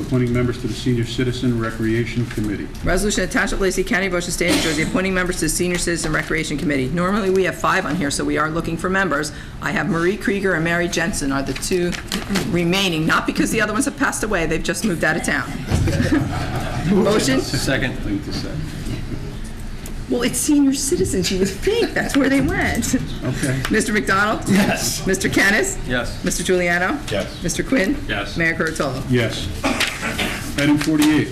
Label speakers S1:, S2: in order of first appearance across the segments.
S1: appointing members to the Senior Citizen Recreation Committee.
S2: Resolution of Township of Lacey County, Ocean State, New Jersey, appointing members to the Senior Citizen Recreation Committee. Normally, we have five on here, so we are looking for members. I have Marie Krieger and Mary Jensen are the two remaining, not because the other ones have passed away, they've just moved out of town. Motion?
S3: Second.
S1: Link to second.
S2: Well, it's senior citizens, you would think, that's where they went.
S1: Okay.
S2: Mr. McDonald? Yes. Mr. Kennis?
S3: Yes.
S2: Mr. Juliano?
S4: Yes.
S2: Mr. Quinn?
S3: Yes.
S2: Mayor Kurtolo?
S1: Yes. Item 48,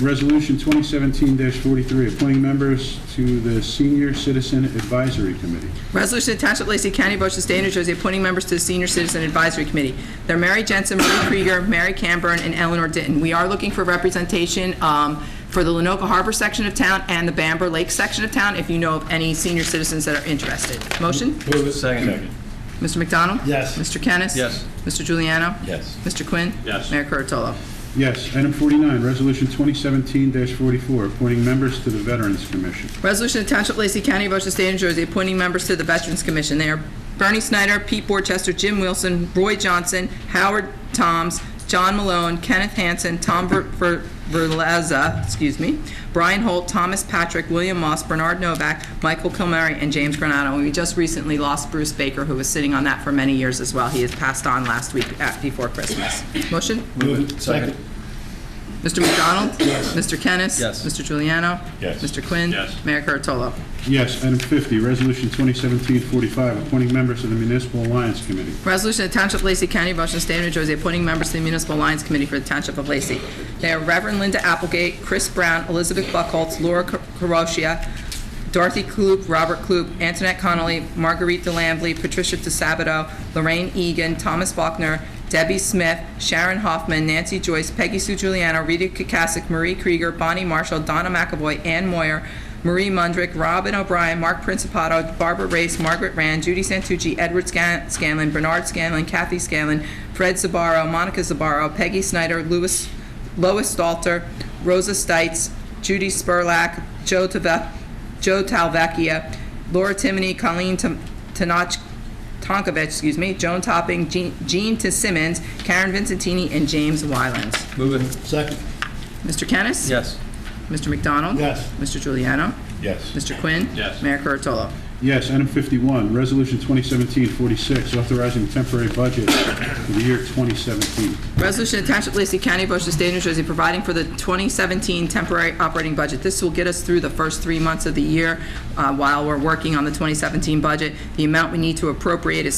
S1: Resolution 2017-43, appointing members to the Senior Citizen Advisory Committee.
S2: Resolution to Township of Lacey County, Ocean State, New Jersey, appointing members to the Senior Citizen Advisory Committee. They're Mary Jensen, Marie Krieger, Mary Camburn, and Eleanor Ditton. We are looking for representation um, for the Lenoka Harbor section of town and the Bamber Lake section of town, if you know of any senior citizens that are interested. Motion?
S3: Move it. Second.
S2: Mr. McDonald?
S3: Yes.
S2: Mr. Kennis?
S3: Yes.
S2: Mr. Juliano?
S4: Yes.
S2: Mr. Quinn?
S3: Yes.
S2: Mayor Kurtolo?
S1: Yes. Item 49, Resolution 2017-44, appointing members to the Veterans Commission.
S2: Resolution of Township of Lacey County, Ocean State, New Jersey, appointing members to the Veterans Commission. They are Bernie Snyder, Pete Borchester, Jim Wilson, Roy Johnson, Howard Toms, John Malone, Kenneth Hansen, Tom Ver- Ver- Verleza, excuse me, Brian Holt, Thomas Patrick, William Moss, Bernard Novak, Michael Kilmary, and James Granado. And we just recently lost Bruce Baker, who was sitting on that for many years as well. He has passed on last week at- before Christmas. Motion?
S3: Move it. Second.
S2: Mr. McDonald? Yes. Mr. Kennis?
S3: Yes.
S2: Mr. Juliano?
S4: Yes.
S2: Mr. Quinn?
S3: Yes.
S2: Mayor Kurtolo?
S1: Yes. Item 50, Resolution 2017-45, appointing members to the Municipal Alliance Committee.
S2: Resolution of Township of Lacey County, Washington State, New Jersey, appointing members to the Municipal Alliance Committee for the Township of Lacey. They are Reverend Linda Applegate, Chris Brown, Elizabeth Buckholz, Laura Carosia, Dorothy Klug, Robert Klug, Antoinette Connolly, Marguerite DeLambly, Patricia DeSabato, Lorraine Egan, Thomas Faulkner, Debbie Smith, Sharon Hoffman, Nancy Joyce, Peggy Sue Giuliano, Rita Kukasik, Marie Krieger, Bonnie Marshall, Donna McAvoy, Ann Moyer, Marie Mundrick, Robin O'Brien, Mark Principato, Barbara Race, Margaret Rand, Judy Santucci, Edward Scan- Scanlon, Bernard Scanlon, Kathy Scanlon, Fred Zabaro, Monica Zabaro, Peggy Snyder, Louis, Lois Stalter, Rosa Stites, Judy Spurlack, Joe Tave- Joe Talvecchia, Laura Timoney, Colleen Tan- Tanach, Tonkovich, excuse me, Joan Topping, Jean, Jean T. Simmons, Karen Vincentini, and James Wylands.
S3: Move it.
S4: Second.
S2: Mr. Kennis?
S3: Yes.
S2: Mr. McDonald?
S4: Yes.
S2: Mr. Juliano?
S4: Yes.
S2: Mr. Quinn?
S3: Yes.
S2: Mayor Kurtolo?
S1: Yes. Item 51, Resolution 2017-46, authorizing temporary budget for the year 2017.
S2: Resolution of Township of Lacey County, Ocean State, New Jersey, providing for the 2017 temporary operating budget. This will get us through the first three months of the year uh, while we're working on the 2017 budget. The amount we need to appropriate is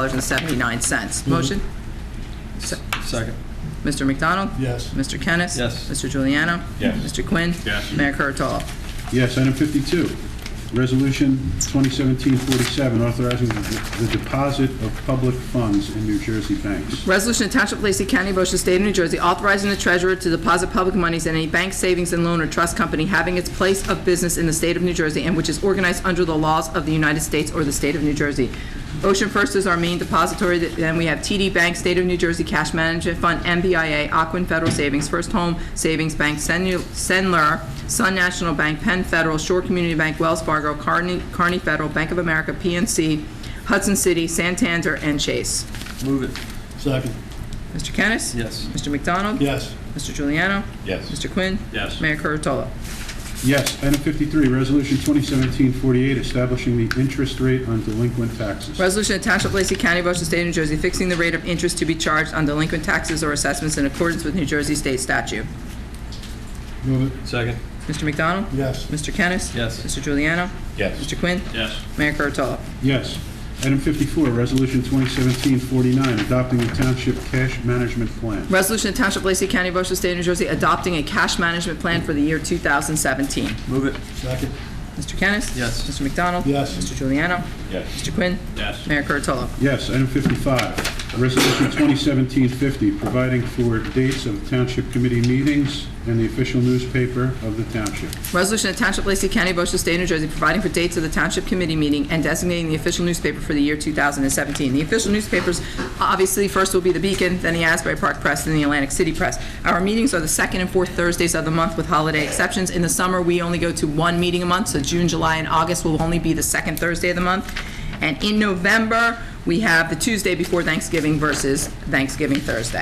S2: $6,992,327.79. Motion?
S3: Second.
S2: Mr. McDonald?
S4: Yes.
S2: Mr. Kennis?
S3: Yes.
S2: Mr. Juliano?
S4: Yes.
S2: Mr. Quinn?
S3: Yes.
S2: Mayor Kurtolo?
S1: Yes, item 52, Resolution 2017-47, authorizing the the deposit of public funds in New Jersey banks.
S2: Resolution of Township of Lacey County, Ocean State of New Jersey, authorizing the treasurer to deposit public monies in any bank savings and loan or trust company having its place of business in the state of New Jersey and which is organized under the laws of the United States or the state of New Jersey. Ocean First is our main depository, then we have TD Bank, State of New Jersey Cash Management Fund, MBIA, Aquin Federal Savings, First Home Savings Bank, Senu- Senler, Sun National Bank, Penn Federal, Shore Community Bank, Wells Fargo, Carney Carney Federal, Bank of America, PNC, Hudson City, Santander, and Chase.
S3: Move it.
S4: Second.
S2: Mr. Kennis?
S3: Yes.
S2: Mr. McDonald?
S4: Yes.
S2: Mr. Juliano?
S4: Yes.
S2: Mr. Quinn?
S3: Yes.
S2: Mayor Kurtolo?
S1: Yes, item 53, Resolution 2017-48, establishing the interest rate on delinquent taxes.
S2: Resolution of Township of Lacey County, Ocean State, New Jersey, fixing the rate of interest to be charged on delinquent taxes or assessments in accordance with New Jersey State statute.
S4: Move it.
S3: Second.
S2: Mr. McDonald?
S4: Yes.
S2: Mr. Kennis?
S3: Yes.
S2: Mr. Juliano?
S4: Yes.
S2: Mr. Quinn?
S3: Yes.
S2: Mayor Kurtolo?
S1: Yes. Item 54, Resolution 2017-49, adopting the Township Cash Management Plan.
S2: Resolution of Township of Lacey County, Ocean State, New Jersey, adopting a cash management plan for the year 2017.
S3: Move it.
S4: Second.
S2: Mr. Kennis?
S3: Yes.
S2: Mr. McDonald?
S4: Yes.
S2: Mr. Juliano?
S4: Yes.
S2: Mr. Quinn?
S3: Yes.
S2: Mayor Kurtolo?
S1: Yes, item 55, Resolution 2017-50, providing for dates of Township Committee meetings and the official newspaper of the township.
S2: Resolution of Township of Lacey County, Ocean State, New Jersey, providing for dates of the Township Committee meeting and designating the official newspaper for the year 2017. The official newspapers, obviously, first will be the Beacon, then the Asbury Park Press, then the Atlantic City Press. Our meetings are the second and fourth Thursdays of the month with holiday exceptions. In the summer, we only go to one meeting a month, so June, July, and August will only be the second Thursday of the month. And in November, we have the Tuesday before Thanksgiving versus Thanksgiving Thursday.